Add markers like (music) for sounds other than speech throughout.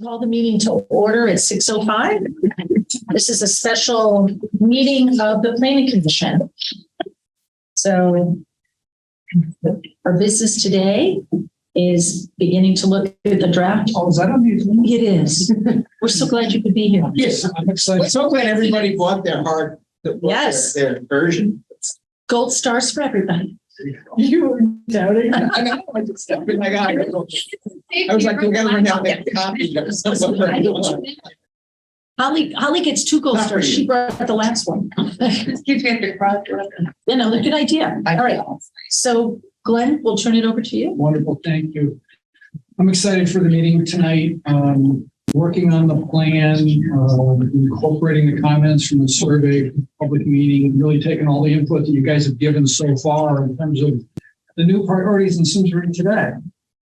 Call the meeting to order at six oh five. This is a special meeting of the planning commission. So our business today is beginning to look at the draft. Oh, is that on the? It is. We're so glad you could be here. Yes, I'm excited. So glad everybody bought their hard. their- Yes. Their version. Gold stars for everybody. You were doubting. I know, I just, I mean, like, I go- I was like, we gotta bring out that copy. (laughs) of some of them. Holly, Holly gets two gold Not for stars. you. She brought the last one. Excuse me, I have to cross. You know, good idea. All right. So Glenn, we'll turn it over to you. Wonderful, thank you. I'm excited for the meeting tonight, um, working on the plan, uh, incorporating the comments from the survey, public meeting, really taking all the input that you guys have given so far in terms of the new priorities and Simsbury today.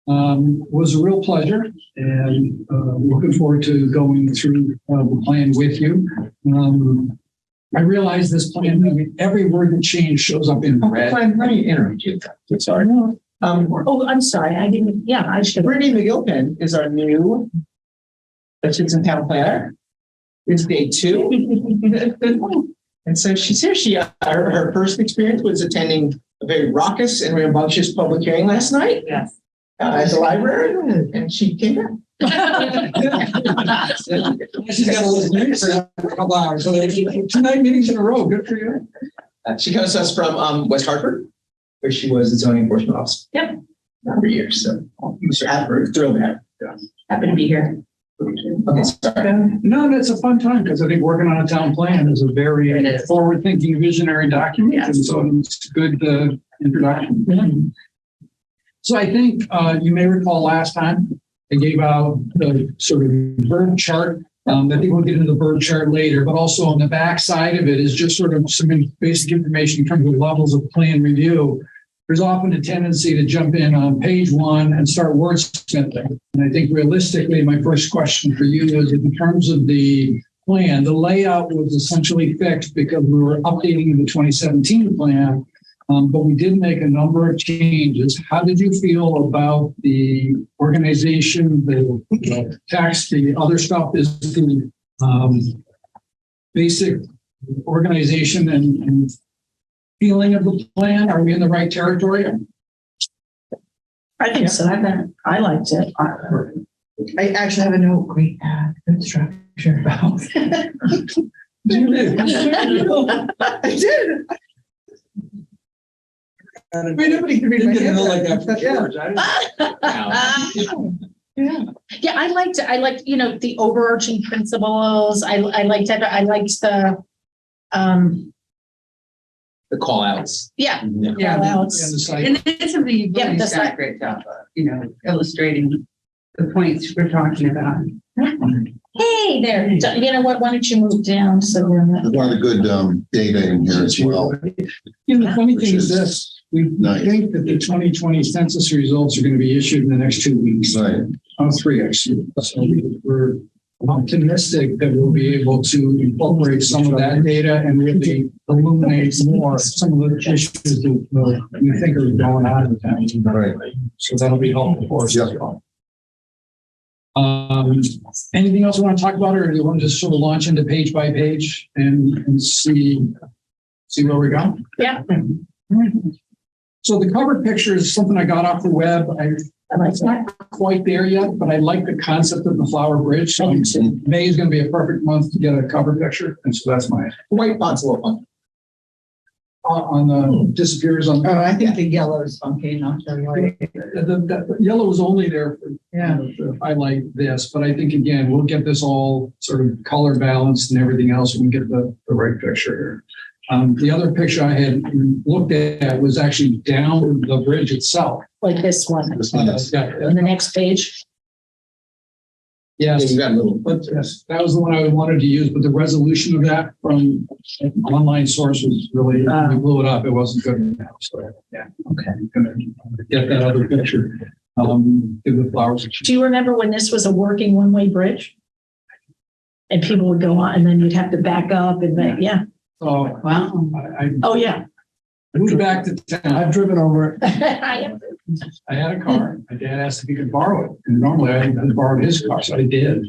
Um, was a real pleasure and, uh, looking forward to going through, uh, the plan with you. Um, I realize this plan, I mean, every word that change shows up in red. Fine, Let me interrupt you. I'm sorry. Um, Oh, I'm sorry. I didn't, yeah, I should. (laughs) Brittany McGilpin is our new Hutchinson Town Planner. It's day two. (laughs) And so she's here. She, her, her first experience was attending a very raucous and rambunctious public hearing last night Yes. uh, at the library, and she came back. She's got a list of meetings for a couple hours, so there's two night meetings in a row, good for you. Uh, She comes to us from um, West Hartford, where she was the zoning enforcement officer. Yep. For years, so Mr. Attenborough, thrilled to have her. Happy to be here. Okay, sorry. No, and it's a fun time, because I think working on a town plan is a It very is. forward-thinking visionary document, and Yes. so it's a good uh, introduction. So I think uh, you may recall last time, I gave out the sort of bird chart. Um, I think we'll get into the bird chart later, but also on the back side of it is just sort of some in- basic information in terms of levels of plan review. There's often a tendency to jump in on page one and start wordsmithing. And I think realistically, my first question for you is in terms of the plan, the layout was essentially fixed because we were updating the 2017 plan. Um, but we did make a number of changes. How did you feel about the organization, the uh, tax, the other stuff is the, um, basic organization and, and feeling of the plan? Are we in the right territory? I think so. I bet I liked it. I actually have a note, great, uh, good (laughs) structure. I did. I mean, nobody can read my Didn't know like handwriting. that for sure. Yeah. (laughs) Yeah, I liked, I liked, you know, the overarching principles. I, I liked, that. I liked the, um, The call outs. yeah, Yeah. And else. the site. And it's something you've Yeah, really that's done a right. great job of, you know, illustrating the points we're talking about. Hey there, you know what? Why don't you move down? So we're There's a lot of good um, data in here as well. You know, the funny thing is Which is this, we nice. think that the twenty twenty census results are gonna be issued in the next two weeks. Right. Oh, three, actually. So we're optimistic that we'll be able to incorporate some of that data and really illuminate more some of the issues that uh, we think are going on in town. Right. So that'll be helpful for us. as Yeah. well. Um, anything else we want to talk about, or do you want to just sort of launch into page by page and, and see, see where we go? Yeah. So the cover picture is something I got off the web. I, I liked it's not quite there yet, but I like the concept of the flower bridge. So May is going to be a perfect month to get a cover picture, and so that's my, White font's a little fun. on, on the disappears on, the, Oh, I think the yellow is funky, not the white. the, the yellow was only there for Yeah. I like this, but I think again, we'll get this all sort of color balanced and everything else and get the, the right picture here. Um, the other picture I had looked at was actually down the bridge itself. like this one. This Uh, is- On yeah, the next page. Yeah, Yes, you got a little. but yes, that was the one I wanted to use, but the resolution of that from an online source was really, we blew it up. It wasn't good enough. So, yeah, okay. gonna Get that other picture, um, do the flowers. Do you remember when this was a working one-way bridge? And people would go on and then you'd have to back up and, then- yeah. So Wow. I, I Oh, yeah. (laughs) moved back to town. I've driven over it. I am I had a car. My dad asked if he could borrow it. And normally I had borrowed his car, so I did.